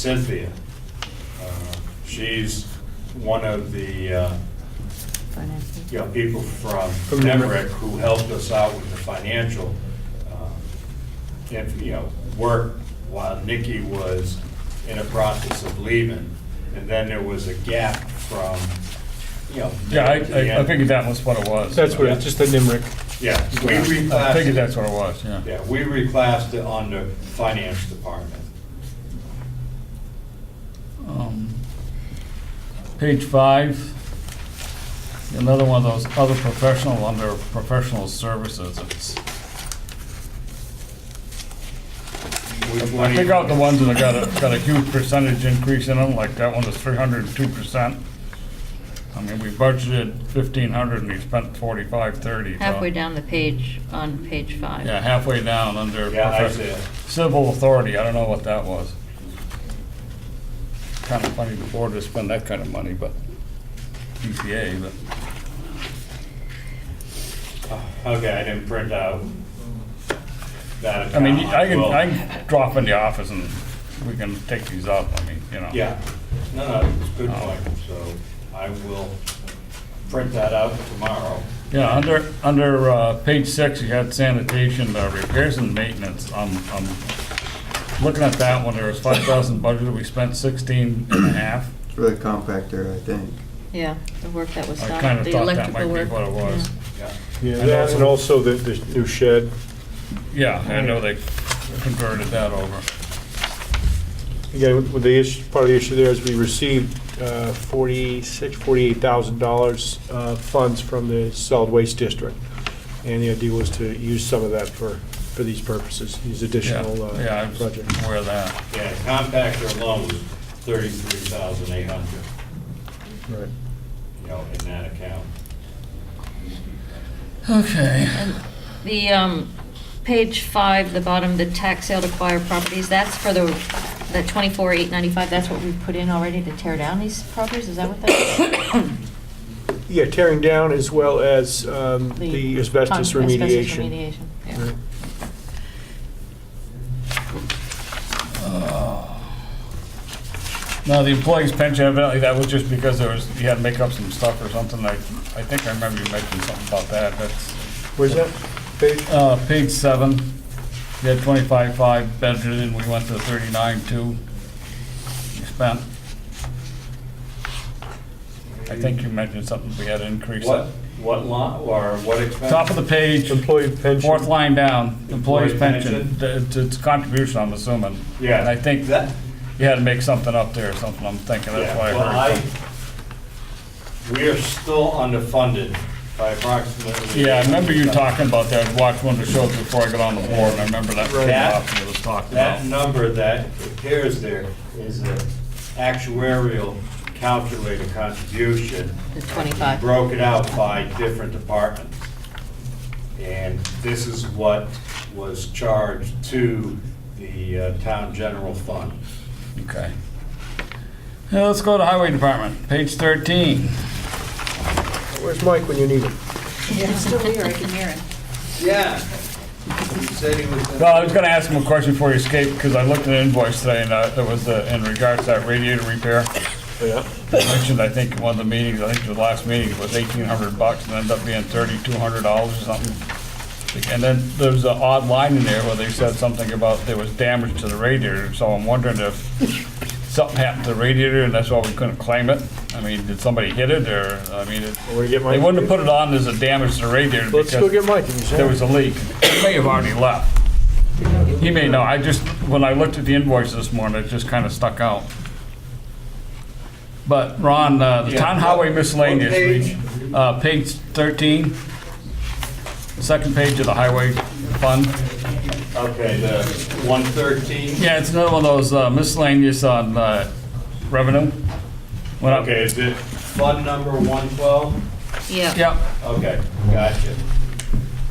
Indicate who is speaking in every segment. Speaker 1: Cynthia. Uh, She's one of the, uh,
Speaker 2: Financing.
Speaker 1: you know, people from
Speaker 3: From
Speaker 1: Nemrick
Speaker 3: Nemrick.
Speaker 1: who helped us out with the financial, uh, and, you know, work while Nikki was in the process of leaving. And then there was a gap from, you know.
Speaker 4: Yeah, I,
Speaker 1: to the
Speaker 4: I- I
Speaker 1: end.
Speaker 4: figured that was what it was.
Speaker 3: That's what, it's just the NIMRIC.
Speaker 1: Yeah, we uh, reclassified.
Speaker 4: I figured that's what it was, yeah.
Speaker 1: Yeah, we reclassed it on the finance department.
Speaker 4: Um, Page five, another one of those other professional, under professional services, it's,
Speaker 1: Which one
Speaker 4: I
Speaker 1: do
Speaker 4: pick
Speaker 1: you-
Speaker 4: out the ones that have got a, got a huge percentage increase in them, like that one is three hundred and two percent. I mean, we budgeted fifteen hundred and we spent forty-five thirty.
Speaker 2: Halfway down the page, on page five.
Speaker 4: Yeah, halfway down under.
Speaker 1: Yeah, I
Speaker 4: profe-
Speaker 1: see it.
Speaker 4: Civil authority, I don't know what that was. Kind of funny the board to spend that kind of money, but, EPA, but,
Speaker 1: Oh, Okay, I didn't print out that
Speaker 4: I
Speaker 1: account.
Speaker 4: mean, I can,
Speaker 1: Well,
Speaker 4: I can drop in the office and we can take these up, I mean, you know.
Speaker 1: Yeah, no, no, it's a good
Speaker 4: Oh.
Speaker 1: point, so I will print that out tomorrow.
Speaker 4: Yeah, under, under uh, page six, you had sanitation, uh, repairs and maintenance. I'm, I'm looking at that one, there was five thousand budgeted, we spent sixteen and a half.
Speaker 5: It's really compact there, I think.
Speaker 2: Yeah, the work that was
Speaker 4: I
Speaker 2: done.
Speaker 4: kinda
Speaker 2: the
Speaker 4: thought that
Speaker 2: electrical
Speaker 4: might
Speaker 2: work.
Speaker 4: be what it was.
Speaker 2: Yeah.
Speaker 1: Yeah,
Speaker 3: Yeah,
Speaker 4: And
Speaker 3: that, and also
Speaker 4: also-
Speaker 3: the, the new shed.
Speaker 4: Yeah, I know they converted that over.
Speaker 3: Again, with- with the issue, part of the issue there is we received uh, forty-six, forty-eight thousand dollars uh, funds from the solid waste district. And the idea was to use some of that for, for these purposes, these
Speaker 4: Yeah,
Speaker 3: additional
Speaker 4: yeah, I
Speaker 3: uh,
Speaker 4: was
Speaker 3: projects.
Speaker 4: aware of that.
Speaker 1: yeah, compactor alone was thirty-three thousand eight hundred,
Speaker 3: Right.
Speaker 1: you know, in that account.
Speaker 4: Okay.
Speaker 2: The, um, page five, the bottom, the tax sale to acquire properties, that's for the, the twenty-four, eight ninety-five, that's what we put in already to tear down these properties, is that what that is?
Speaker 3: Yeah, tearing down as well as um, the asbestos
Speaker 2: con-
Speaker 3: remediation.
Speaker 2: remediation, yeah.
Speaker 3: Right.
Speaker 4: Now, the employees pension, evidently that was just because there was, you had to make up some stuff or something. I, I think I remember you mentioned something about that. That's,
Speaker 3: Where's that page?
Speaker 4: uh, page seven, you had twenty-five five budgeted, we went to thirty-nine two. You spent, I think you mentioned something, we had to increase
Speaker 1: What,
Speaker 4: it.
Speaker 1: what line, or what expense?
Speaker 4: Top of the page,
Speaker 3: Employee pension.
Speaker 4: fourth line down, employees
Speaker 1: Employee
Speaker 4: pension,
Speaker 1: pension.
Speaker 4: Th- it's it's contribution, I'm assuming.
Speaker 1: Yeah.
Speaker 4: And I think
Speaker 1: That,
Speaker 4: you had to make something up there or something, I'm thinking, that's
Speaker 1: Yeah,
Speaker 4: why
Speaker 1: well,
Speaker 4: I heard.
Speaker 1: I,
Speaker 4: something.
Speaker 1: we are still underfunded by approximately.
Speaker 4: Yeah, I remember you talking about that, I watched one of the shows before I got on the board, and I remember that came
Speaker 1: That-
Speaker 4: up, and it was talked
Speaker 1: That
Speaker 4: about.
Speaker 1: number that appears there is an actuarial calculated contribution.
Speaker 2: The 25.
Speaker 1: Broken out by different departments. And this is what was charged to the uh, town general fund.
Speaker 4: Okay. Now, let's go to Highway Department, page thirteen.
Speaker 3: Where's Mike when you need him?
Speaker 6: He's still here, I can hear him.
Speaker 1: Yeah. He said he was.
Speaker 4: Well, I was gonna ask him a question before he escaped, because I looked at an invoice today, and uh, it was uh, in regards to that radiator repair.
Speaker 3: Yeah.
Speaker 4: I mentioned, I think, in one of the meetings, I think the last meeting, it was eighteen hundred bucks, and ended up being thirty-two hundred dollars or something. And then there was an odd line in there where they said something about there was damage to the radiator, so I'm wondering if something happened to the radiator, and that's why we couldn't claim it? I mean, did somebody hit it, or, I mean, it-
Speaker 3: Wanna get Mike?
Speaker 4: they wouldn't have put it on as a damage to the radiator
Speaker 3: Let's go get
Speaker 4: because
Speaker 3: Mike. if he's
Speaker 4: there was a leak. He may have already left. He may know, I just, when I looked at the invoice this morning, it just kind of stuck out. But Ron, uh, the town
Speaker 1: Yeah.
Speaker 4: highway miscellaneous,
Speaker 1: What page?
Speaker 4: we- uh, page 13, second page of the highway fund.
Speaker 1: Okay, the 113?
Speaker 4: Yeah, it's another one of those uh, miscellaneous on uh, revenue. Went up-
Speaker 1: Okay, is it fund number 112?
Speaker 2: Yeah.
Speaker 4: Yep.
Speaker 1: Okay, gotcha.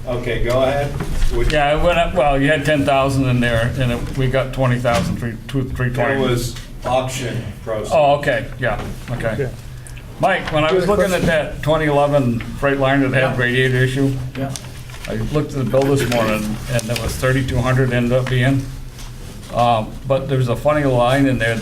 Speaker 1: Okay, go ahead. Would-
Speaker 4: Yeah, it went up, well, you had 10,000 in there, and it- we got 20,000, three- two-
Speaker 1: There
Speaker 4: 320.
Speaker 1: was auction proceeds.
Speaker 4: Oh, okay, yeah, okay. Mike, when I was looking at that 2011 Freightliner that had radiator issue, I looked at the bill this morning, Uh, and it was 3,200 ended up being. Um, But there was a funny line in there